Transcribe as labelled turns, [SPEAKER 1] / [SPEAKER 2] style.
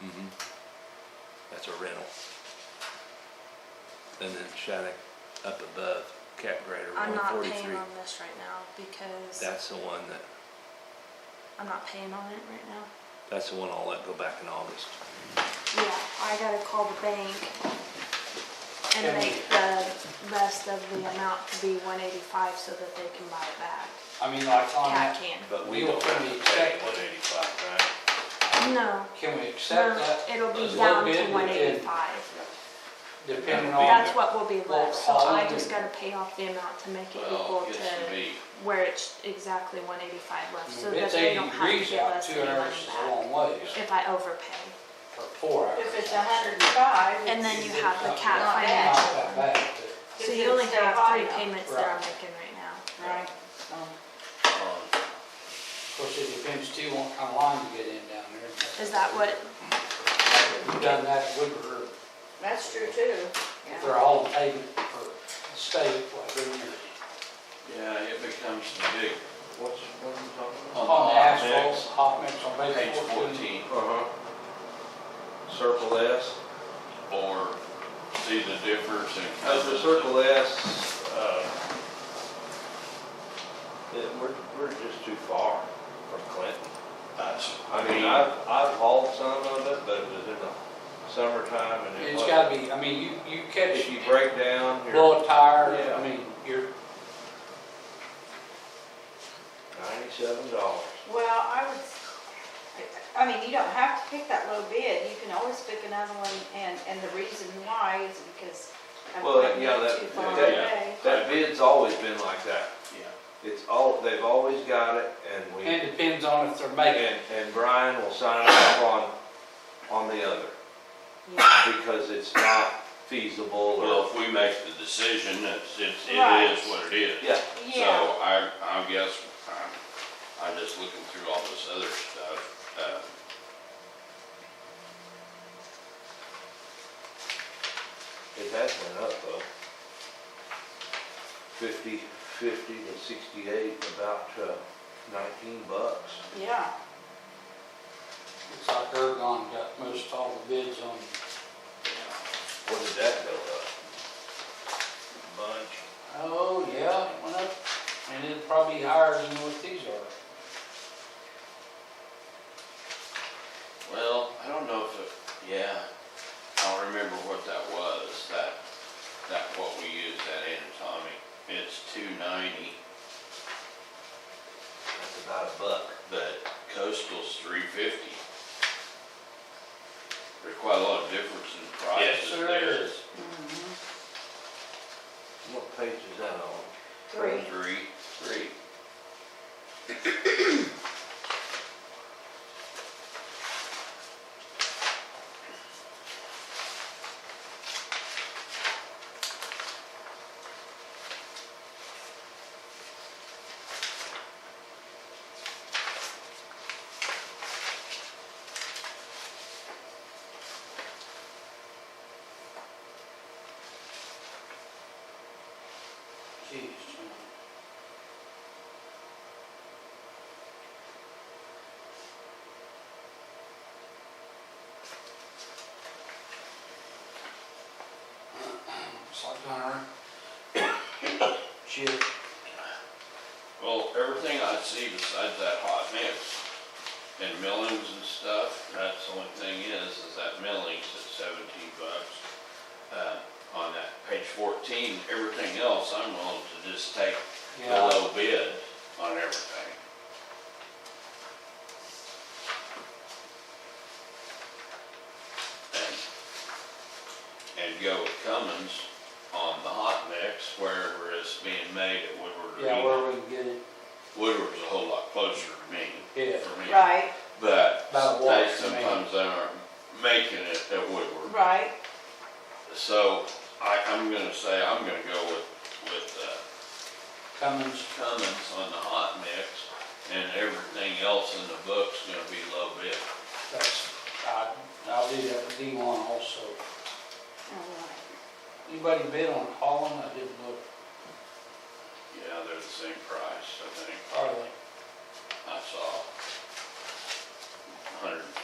[SPEAKER 1] Mm-hmm. That's a rental. And then Shattuck up above, Cap Grader,
[SPEAKER 2] I'm
[SPEAKER 1] one
[SPEAKER 2] not paying
[SPEAKER 1] forty-three.
[SPEAKER 2] on this right now because
[SPEAKER 1] That's the one that,
[SPEAKER 2] I'm not paying on it right now.
[SPEAKER 1] that's the one I'll let go back in August.
[SPEAKER 2] Yeah, I gotta call the bank and
[SPEAKER 3] And-
[SPEAKER 2] make the rest of the amount to be one eighty-five so that they can buy it back.
[SPEAKER 3] I mean, like on
[SPEAKER 2] Cat
[SPEAKER 3] that,
[SPEAKER 2] can't.
[SPEAKER 1] But we
[SPEAKER 3] You'll
[SPEAKER 1] don't have
[SPEAKER 3] pay
[SPEAKER 1] to pay
[SPEAKER 3] check.
[SPEAKER 1] one eighty-five, right?
[SPEAKER 2] No,
[SPEAKER 3] can we accept
[SPEAKER 2] no,
[SPEAKER 3] that
[SPEAKER 2] it'll
[SPEAKER 1] Those
[SPEAKER 2] be
[SPEAKER 3] little
[SPEAKER 2] down
[SPEAKER 3] bit
[SPEAKER 2] to
[SPEAKER 3] we
[SPEAKER 2] one
[SPEAKER 3] did.
[SPEAKER 2] eighty-five.
[SPEAKER 3] depending
[SPEAKER 1] Well,
[SPEAKER 3] on,
[SPEAKER 2] That's what will be left, so
[SPEAKER 3] Well,
[SPEAKER 2] I
[SPEAKER 3] um,
[SPEAKER 2] just gotta pay off the amount to make it
[SPEAKER 1] Well,
[SPEAKER 2] equal
[SPEAKER 1] it should
[SPEAKER 2] to
[SPEAKER 1] be,
[SPEAKER 2] where it's exactly one eighty-five left, so
[SPEAKER 3] if
[SPEAKER 2] that
[SPEAKER 3] it's
[SPEAKER 2] they
[SPEAKER 3] eighty
[SPEAKER 2] don't have to
[SPEAKER 3] degrees
[SPEAKER 2] give
[SPEAKER 3] out,
[SPEAKER 2] us
[SPEAKER 3] two
[SPEAKER 2] any money
[SPEAKER 3] hours
[SPEAKER 2] back
[SPEAKER 3] is a long ways,
[SPEAKER 2] if I overpay.
[SPEAKER 3] or four hours.
[SPEAKER 4] If it's a hundred and five.
[SPEAKER 2] And then you have the cat
[SPEAKER 3] Not
[SPEAKER 4] bad.
[SPEAKER 2] financial.
[SPEAKER 3] that bad,
[SPEAKER 2] So you only have three payments that I'm
[SPEAKER 3] Right.
[SPEAKER 2] making right now.
[SPEAKER 4] Right.
[SPEAKER 1] um,
[SPEAKER 3] but of course, it depends too on what kind of line you get in down there.
[SPEAKER 2] Is that what,
[SPEAKER 3] We've done that at Woodward,
[SPEAKER 4] That's true too.
[SPEAKER 3] they're all paid for the state, like, every year.
[SPEAKER 5] Yeah, it becomes the big, what's, what are you talking about?
[SPEAKER 3] On the asphalt,
[SPEAKER 5] mix,
[SPEAKER 3] hot mix on
[SPEAKER 5] Page
[SPEAKER 3] base fourteen.
[SPEAKER 5] fourteen,
[SPEAKER 1] uh-huh. Circle S,
[SPEAKER 5] or see the difference in.
[SPEAKER 1] as the circle S, uh, it, we're, we're just too far from Clinton.
[SPEAKER 5] That's,
[SPEAKER 1] I mean, I've, I've hauled some of it, but it was in the summertime and it
[SPEAKER 3] It's
[SPEAKER 1] was,
[SPEAKER 3] gotta be, I mean, you, you catch,
[SPEAKER 1] if you break down, you're
[SPEAKER 3] blow a tire,
[SPEAKER 1] Yeah.
[SPEAKER 3] I mean, you're,
[SPEAKER 1] ninety-seven dollars.
[SPEAKER 4] Well, I would, I mean, you don't have to pick that low bid, you can always pick another one, and, and the reason why is because I'm
[SPEAKER 1] Well,
[SPEAKER 4] putting
[SPEAKER 1] yeah,
[SPEAKER 4] it
[SPEAKER 1] that-
[SPEAKER 4] too far
[SPEAKER 5] yeah.
[SPEAKER 4] away.
[SPEAKER 1] That bid's always been like that.
[SPEAKER 5] yeah,
[SPEAKER 1] It's all, they've always got it and we,
[SPEAKER 3] it depends on if they're making.
[SPEAKER 1] and, and Brian will sign off on, on the other
[SPEAKER 4] Yeah.
[SPEAKER 1] because it's not feasible
[SPEAKER 5] well,
[SPEAKER 1] or,
[SPEAKER 5] if we make the decision, it's, it's, it
[SPEAKER 4] Right.
[SPEAKER 5] is what it is.
[SPEAKER 1] yeah.
[SPEAKER 5] So
[SPEAKER 4] Yeah,
[SPEAKER 5] I, I guess, I'm, I'm just looking through all this other stuff, uh.
[SPEAKER 1] It has went up though. Fifty, fifty to sixty-eight, about uh, nineteen bucks.
[SPEAKER 4] yeah,
[SPEAKER 3] It's like Ergon got most all the bids on,
[SPEAKER 1] What did that go up? Bunch.
[SPEAKER 3] oh, yeah, it went up, and it probably higher than what these are.
[SPEAKER 5] Well, I don't know if it, yeah, I don't remember what that was, that, that what we used, that anatomy. It's two ninety,
[SPEAKER 1] That's about a buck.
[SPEAKER 5] but coastal's three fifty. There's quite a lot of difference in prices
[SPEAKER 3] Sure
[SPEAKER 5] there.
[SPEAKER 3] is.
[SPEAKER 1] What page is that on?
[SPEAKER 4] three.
[SPEAKER 5] Three, three.
[SPEAKER 3] Jeez, It's like Hunter. Shit.
[SPEAKER 5] Well, everything I see besides that hot mix and millings and stuff, that's the only thing is, is that millings at seventeen bucks. Uh, on that page fourteen, everything else, I'm willing to just take the
[SPEAKER 3] Yeah.
[SPEAKER 5] low bid on everything. And, and go with Cummins on the hot mix wherever it's being made at Woodward Arena.
[SPEAKER 3] Yeah, where we can get it,
[SPEAKER 5] Woodward's a whole lot closer to me,
[SPEAKER 3] yeah,
[SPEAKER 5] for me.
[SPEAKER 4] Right,
[SPEAKER 5] But
[SPEAKER 3] About a walk
[SPEAKER 5] they
[SPEAKER 3] for me.
[SPEAKER 5] sometimes aren't making it at Woodward.
[SPEAKER 4] right,
[SPEAKER 5] So I, I'm gonna say, I'm gonna go with, with
[SPEAKER 3] Cummins,
[SPEAKER 5] uh, Cummins on the hot mix and everything else in the book's gonna be low bid.
[SPEAKER 3] that's, I, I'll do that with D1 also.
[SPEAKER 4] Oh, all
[SPEAKER 3] Anybody bid on Holland? I didn't look,
[SPEAKER 5] Yeah, they're the same price, I think.
[SPEAKER 3] hardly.
[SPEAKER 5] I saw hundred